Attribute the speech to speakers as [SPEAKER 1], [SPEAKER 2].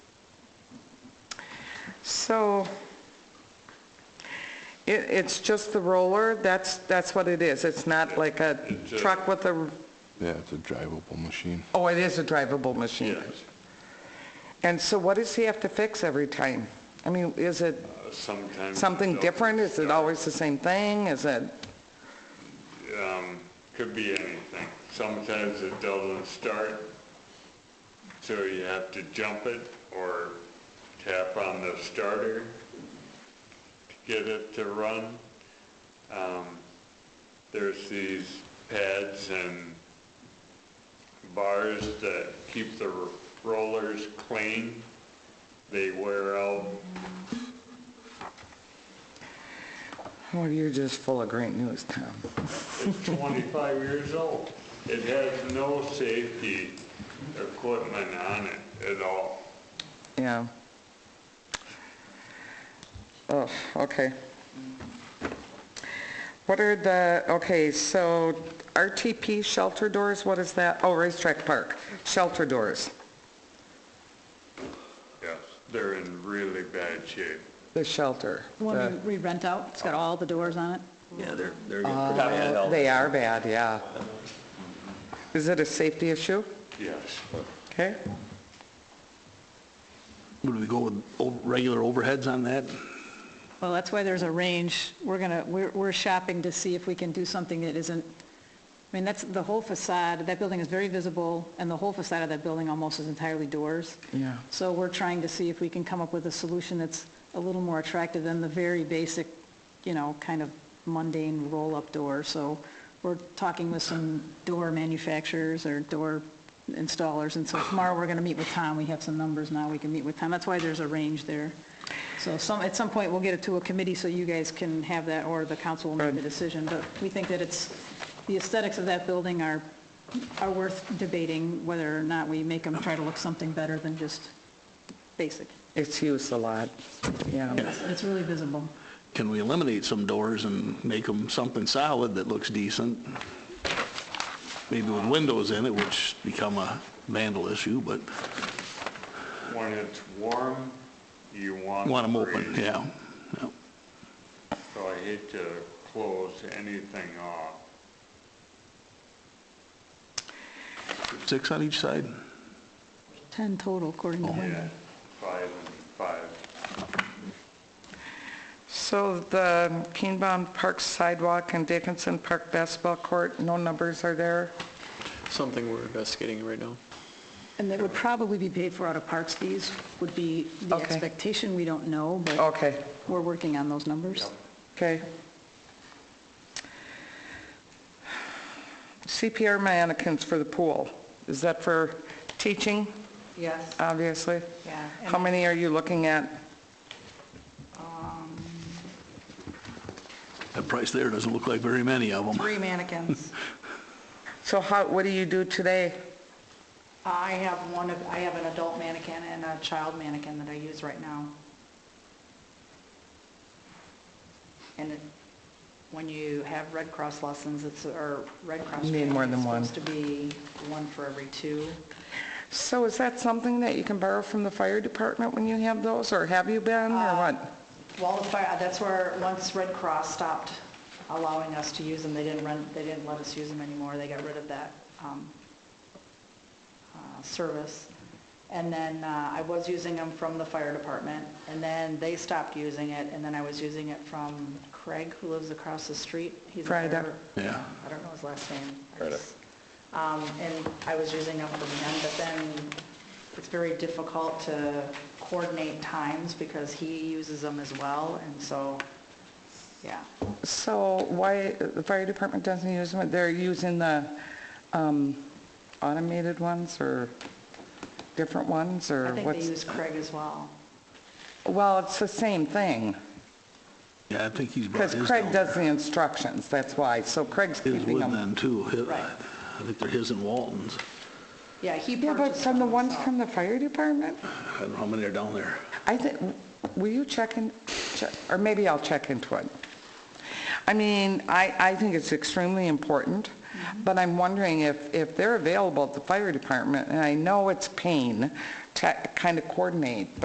[SPEAKER 1] So it, it's just the roller, that's, that's what it is. It's not like a truck with a,
[SPEAKER 2] Yeah, it's a drivable machine.
[SPEAKER 1] oh, it is a drivable machine.
[SPEAKER 3] Yes.
[SPEAKER 1] And so what does he have to fix every time? I mean, is it
[SPEAKER 3] Uh, Sometimes.
[SPEAKER 1] something
[SPEAKER 3] no.
[SPEAKER 1] different? Is it always the same thing? Is it,
[SPEAKER 3] Um, Could be anything. Sometimes it doesn't start, so you have to jump it or tap on the starter to get it to run. Um, There's these pads and bars that keep the r- rollers clean. They wear out
[SPEAKER 1] oh, you're just full of great news, Tom.
[SPEAKER 3] It's 25 years old. It has no safety equipment on it at all.
[SPEAKER 1] Yeah. Oh, okay. What are the, okay, so RTP shelter doors, what is that? Oh, racetrack park, shelter doors,
[SPEAKER 3] Yes. They're in really bad shape.
[SPEAKER 1] the shelter.
[SPEAKER 4] The one
[SPEAKER 1] the-
[SPEAKER 4] we we rent out, it's got all the doors on it.
[SPEAKER 5] Yeah, they're, they're getting pretty bad health.
[SPEAKER 1] Uh, They are bad, yeah. Is it a safety issue?
[SPEAKER 3] Yes.
[SPEAKER 1] Okay,
[SPEAKER 6] Would we go with o- regular overheads on that?
[SPEAKER 4] Well, that's why there's a range. We're gonna, we're, we're shopping to see if we can do something that isn't, I mean, that's, the whole facade, that building is very visible, and the whole facade of that building almost is entirely doors.
[SPEAKER 1] Yeah.
[SPEAKER 4] So we're trying to see if we can come up with a solution that's a little more attractive than the very basic, you know, kind of mundane roll-up door. So we're talking with some door manufacturers or door installers, and so tomorrow we're gonna meet with Tom. We have some numbers now, we can meet with Tom. That's why there's a range there. So some, at some point, we'll get it to a committee so you guys can have that, or the council will make the decision. But we think that it's, the aesthetics of that building are, are worth debating whether or not we make them try to look something better than just basic.
[SPEAKER 1] it's used a lot, yeah.
[SPEAKER 4] It's really visible.
[SPEAKER 6] Can we eliminate some doors and make them something solid that looks decent? Maybe with windows in it, which become a vandal issue, but
[SPEAKER 3] When it's warm, you want.
[SPEAKER 6] want them
[SPEAKER 3] breeze.
[SPEAKER 6] open, yeah. yeah.
[SPEAKER 3] So I hate to close anything off.
[SPEAKER 6] Six on each side?
[SPEAKER 4] 10 total, according
[SPEAKER 1] Oh,
[SPEAKER 4] to him.
[SPEAKER 3] Yeah. Five and five.
[SPEAKER 1] So the Keenbaum Park sidewalk and Dickinson Park basketball court, no numbers are there?
[SPEAKER 5] Something we're investigating right now.
[SPEAKER 4] And that would probably be paid for out of parks fees, would be the
[SPEAKER 1] Okay. Oh.
[SPEAKER 4] expectation. We don't know, but
[SPEAKER 1] Okay.
[SPEAKER 4] we're working on those numbers.
[SPEAKER 1] Okay. CPR mannequins for the pool, is that for teaching,
[SPEAKER 7] Yes,
[SPEAKER 1] obviously?
[SPEAKER 7] Yeah,
[SPEAKER 1] How
[SPEAKER 7] and-
[SPEAKER 1] many are you looking at?
[SPEAKER 6] That price there doesn't look like very many of them.
[SPEAKER 7] three mannequins.
[SPEAKER 1] So how, what do you do today?
[SPEAKER 7] I have one of, I have an adult mannequin and a child mannequin that I use right now. And it- when you have Red Cross lessons, it's, or Red Cross.
[SPEAKER 1] You need
[SPEAKER 7] training,
[SPEAKER 1] more than one.
[SPEAKER 7] It's supposed to be one for every two.
[SPEAKER 1] So is that something that you can borrow from the fire department when you have those, or have you been, or
[SPEAKER 7] Uh,
[SPEAKER 1] what?
[SPEAKER 7] Well, the fire, uh, that's where, once Red Cross stopped allowing us to use them, they didn't run, they didn't let us use them anymore. They got rid of that um, uh, service. And then uh, I was using them from the fire department, and then they stopped using it, and then I was using it from Craig, who lives across the street. He's a fire-
[SPEAKER 1] Frieda.
[SPEAKER 6] Yeah.
[SPEAKER 7] I don't know his last name. Um, And I was using them from him, but then it's very difficult to coordinate times because he uses them as well, and so, yeah.
[SPEAKER 1] So why, the fire department doesn't use them, they're using the um, automated ones, or different ones, or
[SPEAKER 7] I
[SPEAKER 1] what's?
[SPEAKER 7] think they use Craig as well.
[SPEAKER 1] Well, it's the same thing.
[SPEAKER 6] Yeah, I think he's brought
[SPEAKER 1] Because
[SPEAKER 6] his
[SPEAKER 1] Craig
[SPEAKER 6] down.
[SPEAKER 1] does the instructions, that's why, so Craig's
[SPEAKER 6] His
[SPEAKER 1] keeping
[SPEAKER 6] would
[SPEAKER 1] them.
[SPEAKER 6] then too. His-
[SPEAKER 7] Right.
[SPEAKER 6] I think they're his and Walton's.
[SPEAKER 7] Yeah, he
[SPEAKER 1] Yeah, but
[SPEAKER 7] purchased
[SPEAKER 1] from
[SPEAKER 7] them
[SPEAKER 1] the ones
[SPEAKER 7] himself.
[SPEAKER 1] from the fire department?
[SPEAKER 6] I don't know how many are down there.
[SPEAKER 1] I think, will you check in, check- or maybe I'll check into it. I mean, I, I think it's extremely important, but I'm wondering if, if they're available at the fire department, and I know it's pain to kind of coordinate,